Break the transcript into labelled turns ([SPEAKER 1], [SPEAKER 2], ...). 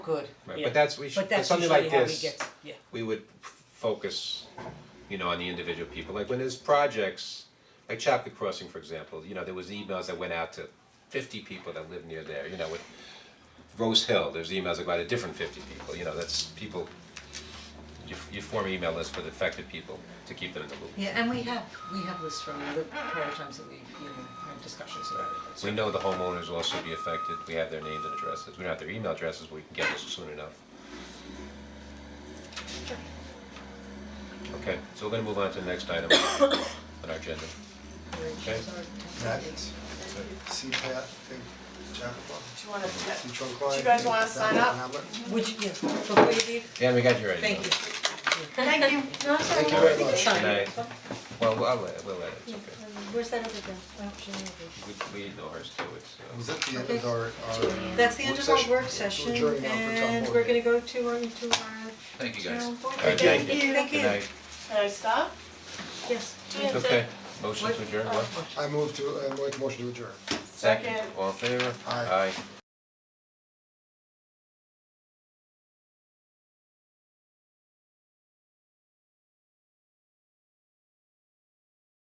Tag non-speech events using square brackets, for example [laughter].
[SPEAKER 1] good.
[SPEAKER 2] Right,
[SPEAKER 3] Yeah.
[SPEAKER 2] but that's, we should,
[SPEAKER 3] But
[SPEAKER 2] for
[SPEAKER 3] that's usually
[SPEAKER 2] something
[SPEAKER 3] how we
[SPEAKER 2] like
[SPEAKER 3] get,
[SPEAKER 2] this,
[SPEAKER 3] yeah,
[SPEAKER 2] we would f- focus, you know, on the individual people, like when there's projects, like Chapka Crossing, for example, you know, there was emails that went out to fifty people that live near there, you know, with Rose Hill, there's emails that go out to different fifty people, you know, that's people, you, f- you form email lists for the affected people to keep them in the loop.
[SPEAKER 1] Yeah, and we have, we have lists from the prior times that we, you know, had discussions about it, so.
[SPEAKER 2] We know the homeowners will also be affected, we have their names and addresses, we don't have their email addresses, but we can get this soon enough. Okay, so we're gonna move on to the next item [coughs] on our agenda. Okay.
[SPEAKER 4] That
[SPEAKER 1] Thanks.
[SPEAKER 4] CPAT thing, Chappaqua,
[SPEAKER 5] Do you wanna, do
[SPEAKER 4] Citron Coin.
[SPEAKER 5] you guys wanna sign up?
[SPEAKER 3] would you, yeah, before you leave,
[SPEAKER 2] Yeah, we got your idea.
[SPEAKER 3] thank you.
[SPEAKER 5] Thank you. No, it's
[SPEAKER 4] Thank you
[SPEAKER 5] alright.
[SPEAKER 4] very much.
[SPEAKER 2] Good night. Well, we'll, I'll let- we'll let it, it's okay.
[SPEAKER 6] Where's that other bill? Oh, she never did.
[SPEAKER 2] We, we know ours too, it's,
[SPEAKER 4] Was
[SPEAKER 2] uh,
[SPEAKER 4] that the end of our, our?
[SPEAKER 6] That's the end
[SPEAKER 4] work
[SPEAKER 6] of our
[SPEAKER 4] session?
[SPEAKER 6] work session
[SPEAKER 4] Adjourn now for town
[SPEAKER 6] and
[SPEAKER 4] board.
[SPEAKER 6] we're gonna go to our, to our
[SPEAKER 7] Thank you guys.
[SPEAKER 6] town board.
[SPEAKER 2] All right, thank you.
[SPEAKER 6] Thank
[SPEAKER 2] good night.
[SPEAKER 5] Can I stop?
[SPEAKER 6] Yes.
[SPEAKER 2] It's okay, motion to adjourn, what?
[SPEAKER 4] I move to, I make a motion to adjourn.
[SPEAKER 2] Second,
[SPEAKER 5] Second.
[SPEAKER 2] all in favor?
[SPEAKER 4] Aye.
[SPEAKER 2] Aye.